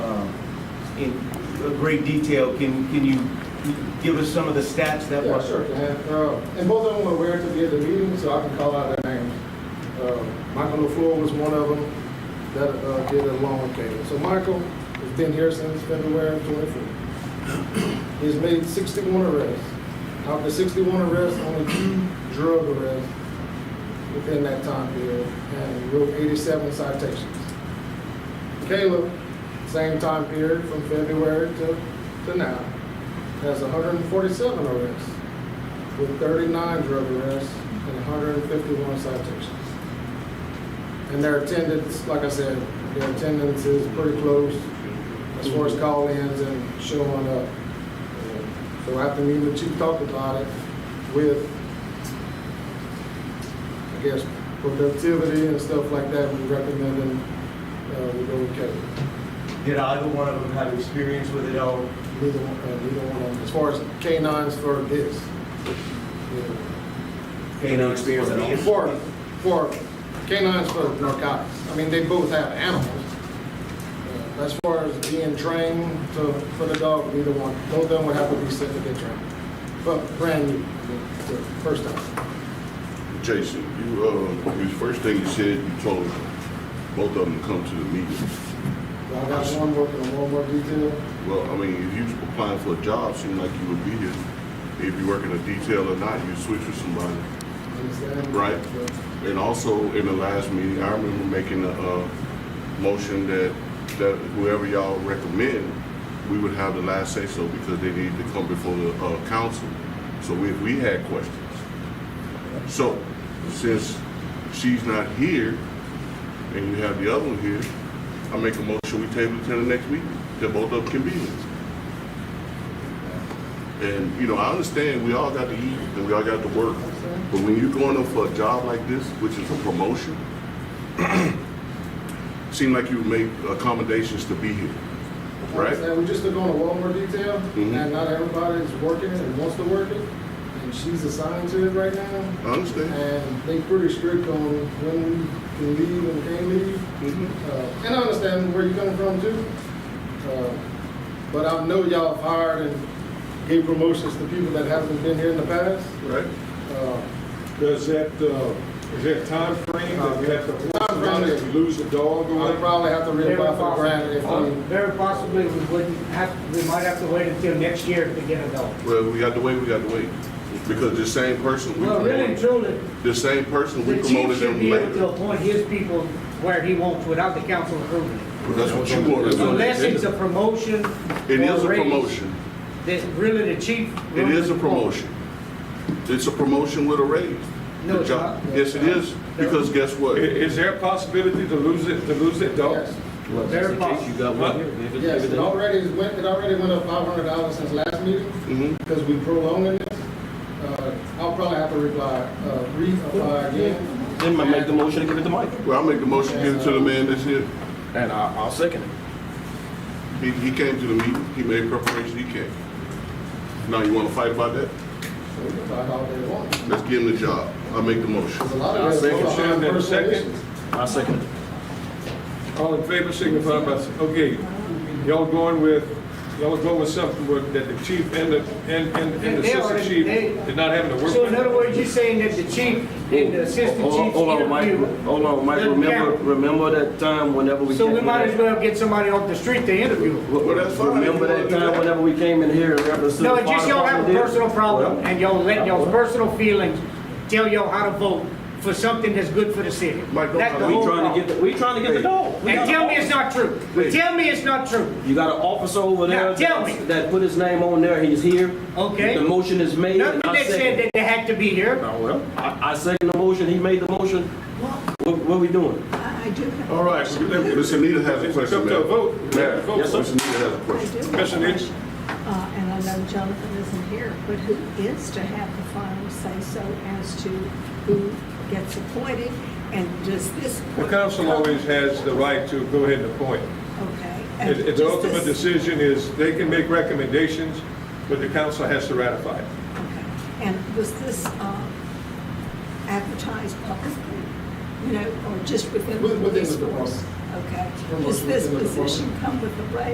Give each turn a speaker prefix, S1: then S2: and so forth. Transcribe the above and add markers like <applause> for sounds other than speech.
S1: um, in great detail. Can, can you give us some of the stats that
S2: Yeah,
S1: were?
S2: sure, can. Uh, And both of them were aware to be at the meeting, so I can call out their names. Uh, Michael LaFleur was one of them that uh, did a loan payment. So Michael has been here since February of 24. <clears throat> He's made 61 arrests. Out of the 61 arrests, only two drug arrests within that time period, and wrote 87 citations. Caleb, same time period, from February to, to now, has 147 arrests, with 39 drug arrests and 151 citations. And their attendance, like I said, their attendance is pretty close as far as call-ins and showing up. So after me and the chief talked about it with, I guess, productivity and stuff like that, we recommend them, uh, we go with Caleb.
S1: Did either one of them have experience with it oh, all?
S2: Neither one, uh, neither one of them, as far as canines for this. yeah.
S1: Any experience at all?
S2: For, for canines for narcotics. I mean, they both have animals. Uh, As far as being trained to, for the dog, neither one, both of them would have to be sent to get trained. But brand new, I mean, the first time.
S3: Jason, you, uh, the first thing you said, you told both of them to come to the meeting.
S2: I got one working on one more detail.
S3: Well, I mean, if you was applying for a job, seemed like you would be here. If you work in a detail or not, you switch with somebody.
S2: understand?
S3: Right.
S2: But-
S3: And also, in the last meeting, I remember making a, uh, motion that, that whoever y'all recommend, we would have the last say-so because they needed to come before the, uh, council. So we, we had questions. So, since she's not here, and you have the other one here, I make a motion, we table it till the next week, that both of them can be here. And, you know, I understand, we all got to eat, and we all got to work, but when you're going up for a job like this, which is a promotion, <clears throat> seem like you make accommodations to be here, right?
S2: And we just took on a lot more detail,
S3: Mhm.
S2: and not everybody's working it and wants to work it, and she's assigned to it right now.
S3: I understand.
S2: And they pretty strict on when we can leave and can't leave.
S3: Mhm.
S2: Uh, And I understand where you're coming from too. Uh, But I know y'all have hired and gave promotions to people that haven't been here in the past.
S3: Right?
S2: Uh,
S4: Does that, uh, is that timeframe that we have to,
S2: Timeframe is-
S4: if you lose a dog or
S2: I'll
S4: whatever?
S2: probably have to
S5: Very
S2: reapply for granted if
S5: possibly-
S2: we,
S5: Very possibly, we wouldn't have, we might have to wait until next year to get a dog.
S3: Well, we got to wait, we got to wait, because the same person we
S5: Well, really and
S3: promoted,
S5: truly,
S3: the same person we
S5: the chief
S3: promoted
S5: should
S3: them
S5: be able
S3: later.
S5: to appoint his people where he wants without the council approving it.
S3: Well, That's what you want to do.
S5: Unless it's a promotion.
S3: It is
S5: or
S3: a
S5: raise
S3: promotion.
S5: That really the chief.
S3: It is a promotion. It's a promotion with a raise.
S5: No, it's
S3: The job-
S5: not.
S3: Yes, it is, because guess
S4: I-
S3: what?
S4: Is there a possibility to lose it, to lose that dog?
S2: yes.
S6: Well,
S5: Very
S6: just in case you got one here. if it-
S2: Yes,
S6: if
S2: it
S6: it-
S2: already is went, it already went up five hundred dollars since last meeting.
S3: Mhm.
S2: because we prolonging this, uh, I'll probably have to reply, uh, reapply again.
S6: Then I make the motion to give it to Mike.
S3: Well, I'll make the motion, give it to the man that's here.
S6: And I, I'll second it.
S3: He, he came to the meeting, he made preparation, he came. Now, you want to fight about that?
S2: So we can talk all day long.
S3: Let's give him the job. I'll make the motion.
S2: Because a lot of
S4: I'll
S2: that
S4: second
S2: is
S4: that.
S2: personal
S4: Second.
S2: issues.
S6: I'll second it.
S4: All in favor, signify by, s- okay, y'all going with, y'all going with something with, that the chief and the, and, and and the
S5: They
S4: assistant
S5: already-
S4: chief
S5: they-
S4: did not having to work?
S5: So in
S4: with?
S5: other words, you're saying that the chief and the assistant
S6: Hold-
S5: chief.
S6: Hold on, Mike,
S5: interview
S6: hold on, Mike,
S5: doesn't
S6: remember,
S5: count.
S6: remember that time whenever we.
S5: So
S6: came
S5: we
S6: in
S5: might
S6: here?
S5: as well get somebody off the street to interview them.
S6: Well,
S3: that's fine.
S6: Remember that time whenever we came in here and referenced. to
S5: No,
S6: the
S5: it's just
S6: fire
S5: y'all have a
S6: department did?
S5: personal problem,
S6: Well,
S5: and y'all let y'all's
S6: well,
S5: personal feelings tell y'all how to vote for something that's good for the city.
S3: Mike, don't
S5: That's the
S3: try- we
S5: whole
S6: We trying to get,
S5: problem.
S6: the we trying to get the dog. We
S5: And
S6: got
S5: tell
S6: an
S5: me it's
S6: officer.
S5: not true.
S3: Hey.
S5: Tell me it's not true.
S6: You got an officer over
S5: Now,
S6: there.
S5: tell
S6: that-
S5: me.
S6: That put his name on there, he's here.
S5: Okay.
S6: The motion is made
S5: Nothing
S6: and I
S5: that said
S6: second.
S5: that they had to be here.
S6: Oh, well, I, I second the motion, he made the motion.
S7: Well,
S6: What, what we doing?
S7: I I do have,
S3: All right, Mr. Nita has a question,
S4: Come to a
S3: ma'am.
S4: vote. We have to vote.
S6: Yes, sir.
S3: Mr. Nita has a
S7: I
S3: question.
S7: do. have
S4: Commissioner Nix?
S7: Uh, and I know Jonathan isn't here, but who is to have the final say-so as to who gets appointed? And does this?
S4: The council always has the right to go ahead and appoint.
S7: Okay. and
S4: It- it- The
S7: does
S4: ultimate
S7: this-
S4: decision is, they can make recommendations, but the council has to ratify it.
S7: Okay. And was this uh, advertised publicly, you know, or just within the
S2: With- within the
S7: police force? Okay.
S2: Promotion
S7: Does this
S2: within the department.
S7: position come with a raise?